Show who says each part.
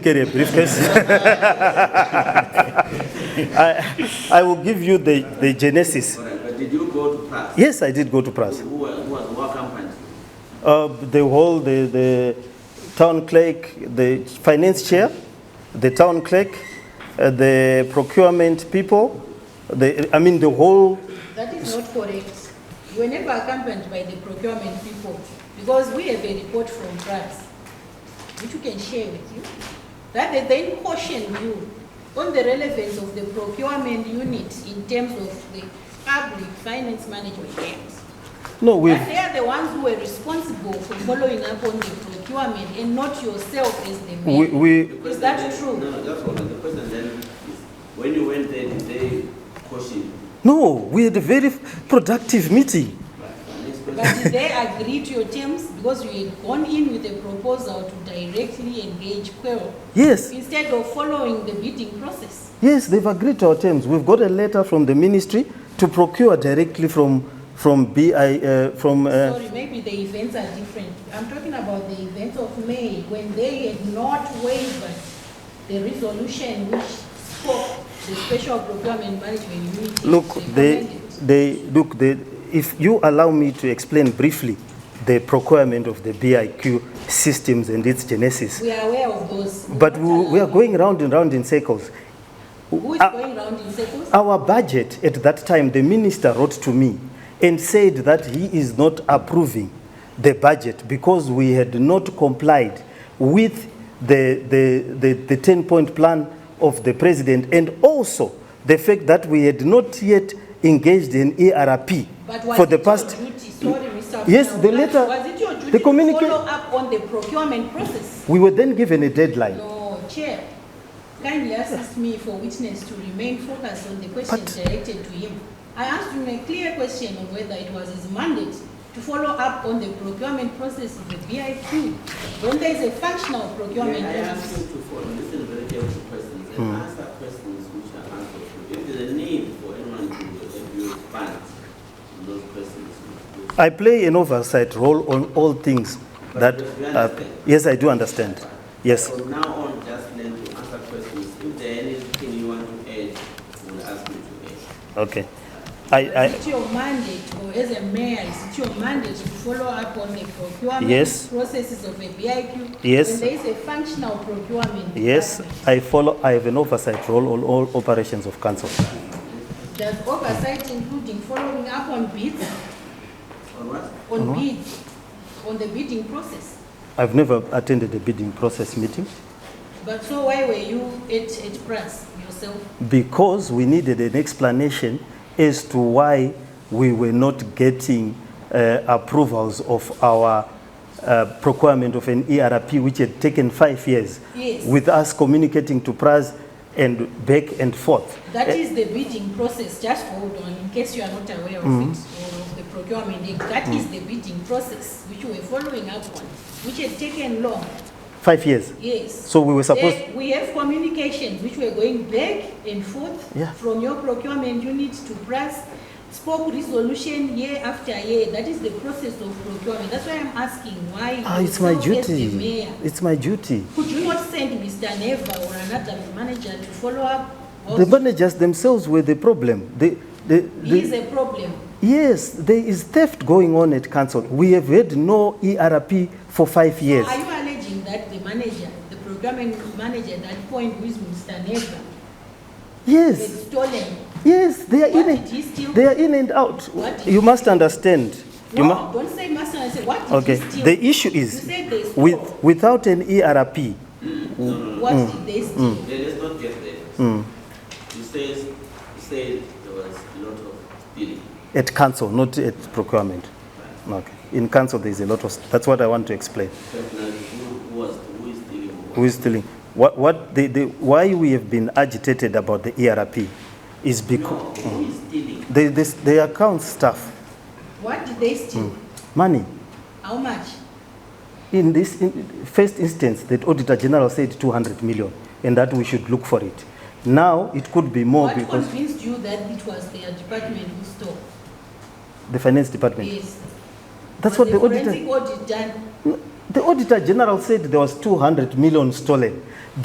Speaker 1: carry a briefcase. I, I will give you the, the genesis.
Speaker 2: Alright, But did you go to Prague?
Speaker 1: Yes, I did go to Pras.
Speaker 2: Who was, who was, who accompanied you?
Speaker 1: Uh, the whole, the, the town clerk, the finance chair, the town clerk, uh, the procurement people, the, I mean, the whole,
Speaker 3: That is not correct. You were never accompanied by the procurement people because we have a report from France, which we can share with you, that they then cautioned you on the relevance of the procurement unit in terms of the public finance management games.
Speaker 1: no, we've,
Speaker 3: But they are the ones who were responsible for following up on the procurement and not yourself as the
Speaker 1: we,
Speaker 3: mayor.
Speaker 1: we,
Speaker 2: The question
Speaker 3: that
Speaker 2: then-
Speaker 3: true?
Speaker 2: No, that's all. The question then is, when you went there, did they caution you?
Speaker 1: no, we had a very productive meeting.
Speaker 2: Right. The next question,
Speaker 3: But did they agree to your terms because you had gone in with a proposal to directly engage Quell
Speaker 1: Yes,
Speaker 3: instead of following the bidding process.
Speaker 1: yes, they've agreed to our terms. We've got a letter from the ministry to procure directly from, from BI, uh, from, uh,
Speaker 3: Sorry, maybe the events are different. I'm talking about the events of May when they had not waived the resolution which spoke the special procurement management unit.
Speaker 1: Look, they, they, look, they, if you allow me to explain briefly the procurement of the BIQ systems and its genesis,
Speaker 3: We are aware of those.
Speaker 1: but we, we are going round and round in circles.
Speaker 3: Who is
Speaker 1: uh,
Speaker 3: going round in circles?
Speaker 1: Our budget at that time, the minister wrote to me and said that he is not approving the budget because we had not complied with the, the, the, the 10 point plan of the president and also the fact that we had not yet engaged in ERP
Speaker 3: But was
Speaker 1: for the
Speaker 3: it your
Speaker 1: past.
Speaker 3: duty- Sorry, Mr.
Speaker 1: Yes,
Speaker 3: Abdullah,
Speaker 1: the letter-
Speaker 3: Was it your duty
Speaker 1: the
Speaker 3: to
Speaker 1: communica-
Speaker 3: follow up on the procurement process?
Speaker 1: We were then given a deadline.
Speaker 3: Your chair kindly asked me for witness to remain focused on the questions directed to him. I asked him a clear question of whether it was his mandate to follow up on the procurement process of the BIQ when there is a functional procurement
Speaker 2: may I ask you
Speaker 3: process.
Speaker 2: to follow, listen very carefully to questions and answer questions which are answered. to you. If there's a need for anyone to abuse funds, those questions. will be-
Speaker 1: I play an oversight role on all things that.
Speaker 2: But you
Speaker 1: are-
Speaker 2: understand?
Speaker 1: yes, I do understand. Yes.
Speaker 2: From now on, just learn to answer questions. If there's anything you want to add, we'll ask you to add.
Speaker 1: Okay. I, I,
Speaker 3: Is it your mandate, or as a mayor, is it your mandate to follow up on the
Speaker 1: Yes.
Speaker 3: procurement processes of the BIQ?
Speaker 1: Yes.
Speaker 3: When there is a functional procurement.
Speaker 1: Yes,
Speaker 3: department?
Speaker 1: I follow, I have an oversight role on all operations of council.
Speaker 3: Does oversight including following up on bids,
Speaker 2: On what?
Speaker 3: on bids, on the bidding process?
Speaker 1: I've never attended a bidding process meeting
Speaker 3: But so why were you at, at press yourself?
Speaker 1: because we needed an explanation as to why we were not getting uh, approvals of our uh, procurement of an ERP which had taken five years.
Speaker 3: Yes.
Speaker 1: With us communicating to PRAS and back and forth.
Speaker 3: That is the bidding process, just hold on, in case you are not aware of
Speaker 1: Mm-hmm.
Speaker 3: it, or of the procurement act, that is the bidding process which you were following up on, which had taken long,
Speaker 1: Five years.
Speaker 3: yes.
Speaker 1: So we were supposed,
Speaker 3: There- We have communications which were going back and forth
Speaker 1: Yeah.
Speaker 3: from your procurement unit to press, spoke resolution year after year. That is the process of procurement. That's why I'm asking why.
Speaker 1: ah, it's my
Speaker 3: yourself as the
Speaker 1: duty.
Speaker 3: mayor,
Speaker 1: It's my duty.
Speaker 3: Could you not send Mr. Neva or another manager to follow up?
Speaker 1: The
Speaker 3: Also,
Speaker 1: managers themselves were the problem. The, the, the,
Speaker 3: He is a problem.
Speaker 1: Yes, there is theft going on at council. We have had no ERP for five years.
Speaker 3: Are you alleging that the manager, the procurement manager at that point, who is Mr. Neva, had
Speaker 1: Yes, Uh,
Speaker 3: stolen?
Speaker 1: yes, they are
Speaker 3: What
Speaker 1: in
Speaker 3: did
Speaker 1: and,
Speaker 3: he steal?
Speaker 1: they are in and out.
Speaker 3: What did-
Speaker 1: You must understand. You mu-
Speaker 3: No, don't say master, I said, what did
Speaker 1: okay.
Speaker 3: he steal?
Speaker 1: The issue
Speaker 3: You
Speaker 1: is
Speaker 3: said they stole.
Speaker 1: with without an E ERP.
Speaker 3: What
Speaker 1: Mm.
Speaker 3: did they steal?
Speaker 2: Let- Let's not get there. You says, you said there was a lot of stealing.
Speaker 1: At council, not at procurement. Okay. In council, there is a lot of. That's what I want to explain.
Speaker 2: Personally, who who was, who is stealing? who
Speaker 1: Who
Speaker 2: was-
Speaker 1: is stealing? What? What? The, the, why we have been agitated about the ERP is because
Speaker 2: No, who is stealing?
Speaker 1: the, this, the account staff
Speaker 3: What did they steal?
Speaker 1: Mm. money.
Speaker 3: How much?
Speaker 1: In this in- first instance, the Auditor General said 200 million and that we should look for it. Now, it could be more
Speaker 3: what
Speaker 1: because
Speaker 3: convinced you that it was their department who stole?
Speaker 1: the Finance Department.
Speaker 3: Yes.
Speaker 1: That's
Speaker 3: Was
Speaker 1: what the
Speaker 3: forensic
Speaker 1: Auditor,
Speaker 3: audit done.
Speaker 1: the Auditor General said there was 200 million stolen.